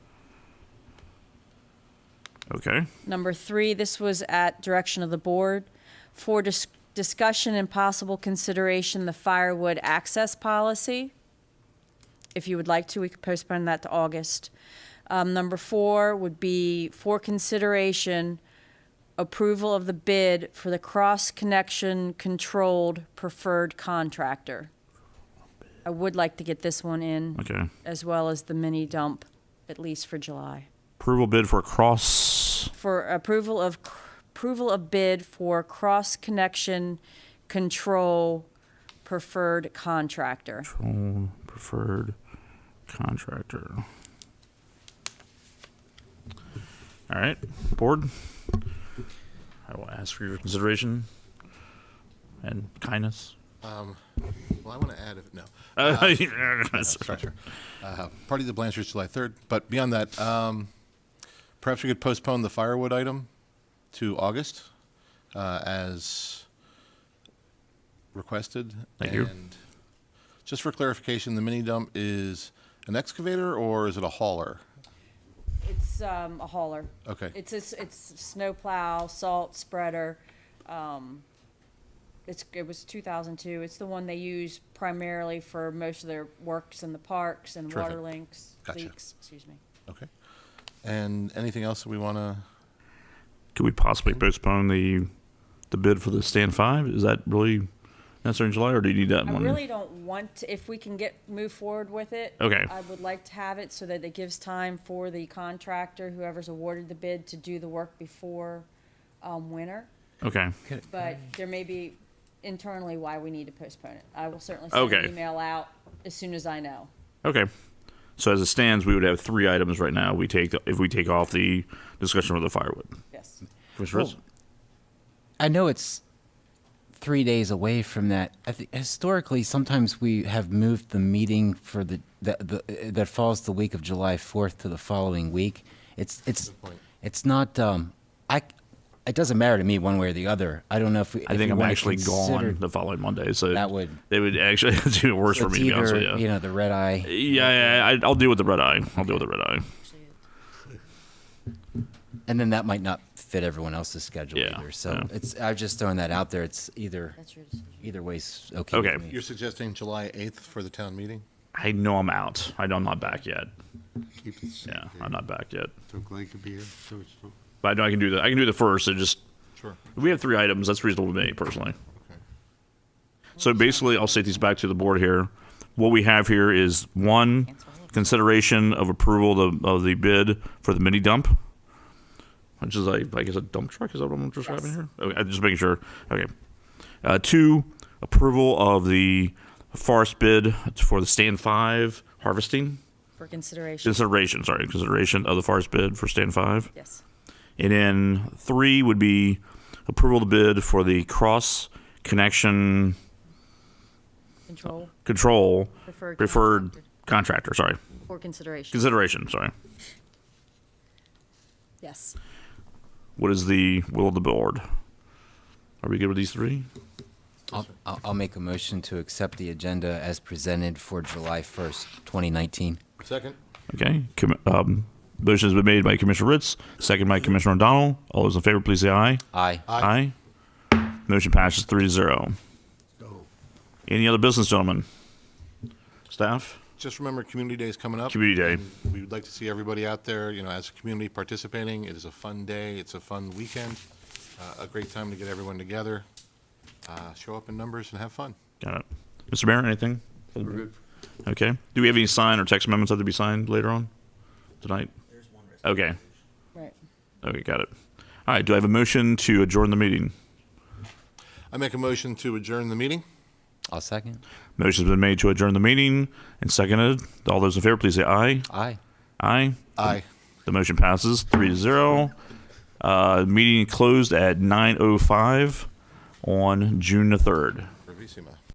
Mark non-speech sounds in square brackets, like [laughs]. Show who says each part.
Speaker 1: Okay.
Speaker 2: Number three, this was at direction of the board. For dis- discussion and possible consideration, the firewood access policy. If you would like to, we could postpone that to August. Um, number four would be for consideration, approval of the bid for the cross-connection controlled preferred contractor. I would like to get this one in.
Speaker 1: Okay.
Speaker 2: As well as the mini dump, at least for July
Speaker 1: Approval bid for cross.
Speaker 2: for approval of, approval of bid for cross-connection control preferred contractor.
Speaker 1: Own preferred contractor. All right, board. I will ask for your consideration and kindness.
Speaker 3: Well, I want to add, if, no,
Speaker 1: Uh,
Speaker 3: sorry, sure. Uh, Party of the Blanchard's July 3rd, but beyond that, um, perhaps we could postpone the firewood item to August uh, as requested.
Speaker 1: Thank you.
Speaker 3: And just for clarification, the mini dump is an excavator or is it a hauler?
Speaker 2: It's, um, a hauler.
Speaker 3: Okay.
Speaker 2: It's, it's, it's snowplow, salt spreader, um, it's, it was two thousand two, it's the one they use primarily for most of their works in the parks and water
Speaker 3: Terrific.
Speaker 2: links,
Speaker 3: Gotcha.
Speaker 2: leaks, excuse me.
Speaker 3: Okay. And anything else that we want to?
Speaker 1: Could we possibly postpone the the bid for the stand five? Is that really necessary in July, or do you need that
Speaker 2: I
Speaker 1: one?
Speaker 2: really don't want, to if we can get, move forward with it.
Speaker 1: Okay.
Speaker 2: I would like to have it so that it gives time for the contractor, whoever's awarded the bid, to do the work before, um, winter.
Speaker 1: okay.
Speaker 2: But there may be internally why we need to postpone it. I will certainly send
Speaker 1: Okay.
Speaker 2: an email out as soon as I know.
Speaker 1: Okay. So as it stands, we would have three items right now. We take if we take off the discussion for the firewood.
Speaker 2: Yes.
Speaker 1: Commissioner
Speaker 4: Well, I know it's three days away from that. I think historically, sometimes we have moved the meeting for the, that the that falls the week of July fourth to the following week. It's it's
Speaker 3: Good point.
Speaker 4: it's not. Um, I it doesn't matter to me one way or the other. I don't know if we.
Speaker 1: I
Speaker 4: if
Speaker 1: think
Speaker 4: we
Speaker 1: I'm
Speaker 4: wanna
Speaker 1: actually
Speaker 4: consider-
Speaker 1: gone the following Monday, so
Speaker 4: That would-
Speaker 1: it would actually [laughs] do it worse for
Speaker 4: it's
Speaker 1: me to be honest
Speaker 4: either,
Speaker 1: with you.
Speaker 4: you know the red eye.
Speaker 1: yeah, yeah, I, I'll deal with the red eye. I'll deal with the red eye.
Speaker 4: and then that might not fit everyone else's schedule
Speaker 1: Yeah,
Speaker 4: either. So
Speaker 1: yeah.
Speaker 4: it's I'm just throwing that out there. It's either
Speaker 2: That's your decision.
Speaker 4: either way's okay.
Speaker 1: Okay.
Speaker 4: With me.
Speaker 3: You're suggesting July 8th for the town meeting?
Speaker 1: I know I'm out. I know I'm not back yet.
Speaker 5: Keep it safe.
Speaker 1: Yeah, I'm not back yet.
Speaker 5: So Glenn could be here, so it's not.
Speaker 1: But I know I can do that. I can do the first. It just
Speaker 3: Sure.
Speaker 1: we have three items. That's reasonable to me personally. So basically, I'll state these back to the board here. What we have here is one consideration of approval of, of the bid for the mini dump, which is like I guess a dump truck. Is that what I'm describing
Speaker 2: Yes.
Speaker 1: here? Okay, I'm just making sure. Okay. Uh, two, approval of the forest bid for the stand five harvesting
Speaker 2: For consideration.
Speaker 1: consideration. Sorry, consideration of the forest bid for stand five.
Speaker 2: Yes.
Speaker 1: And then three would be approval to bid for the cross connection
Speaker 2: Control
Speaker 1: control
Speaker 2: Preferred
Speaker 1: preferred contractor. Sorry,
Speaker 2: for consideration.
Speaker 1: consideration. Sorry.
Speaker 2: Yes.
Speaker 1: What is the will of the board? Are we good with these three?
Speaker 4: I'll, I'll I'll make a motion to accept the agenda as presented for July 1st, 2019.
Speaker 3: Second?
Speaker 1: Okay. Com- um, motion has been made by Commissioner Ritz, second by Commissioner O'Donnell. All those in favor, please say aye.
Speaker 4: Aye.
Speaker 1: Aye. Motion passes three to zero. Any other business, gentlemen? Staff?
Speaker 3: Just remember, Community Day is coming up.
Speaker 1: Community Day.
Speaker 3: And We would like to see everybody out there, you know, as a community participating. It is a fun day. It's a fun weekend. Uh, A great time to get everyone together. Uh, Show up in numbers and have fun.
Speaker 1: Got it. Mr. Mayor, anything? Okay. Do we have any sign or text amendments that have to be signed later on tonight? There's one. Okay.
Speaker 2: Right.
Speaker 1: Okay, got it. All right. Do I have a motion to adjourn the meeting?
Speaker 3: I make a motion to adjourn the meeting.
Speaker 4: I'll second.
Speaker 1: Motion's been made to adjourn the meeting and seconded. All those in favor, please say aye.
Speaker 4: Aye.
Speaker 1: Aye.
Speaker 3: Aye.
Speaker 1: The motion passes three to zero. Uh, meeting closed at 9:05 on oh June the 3rd.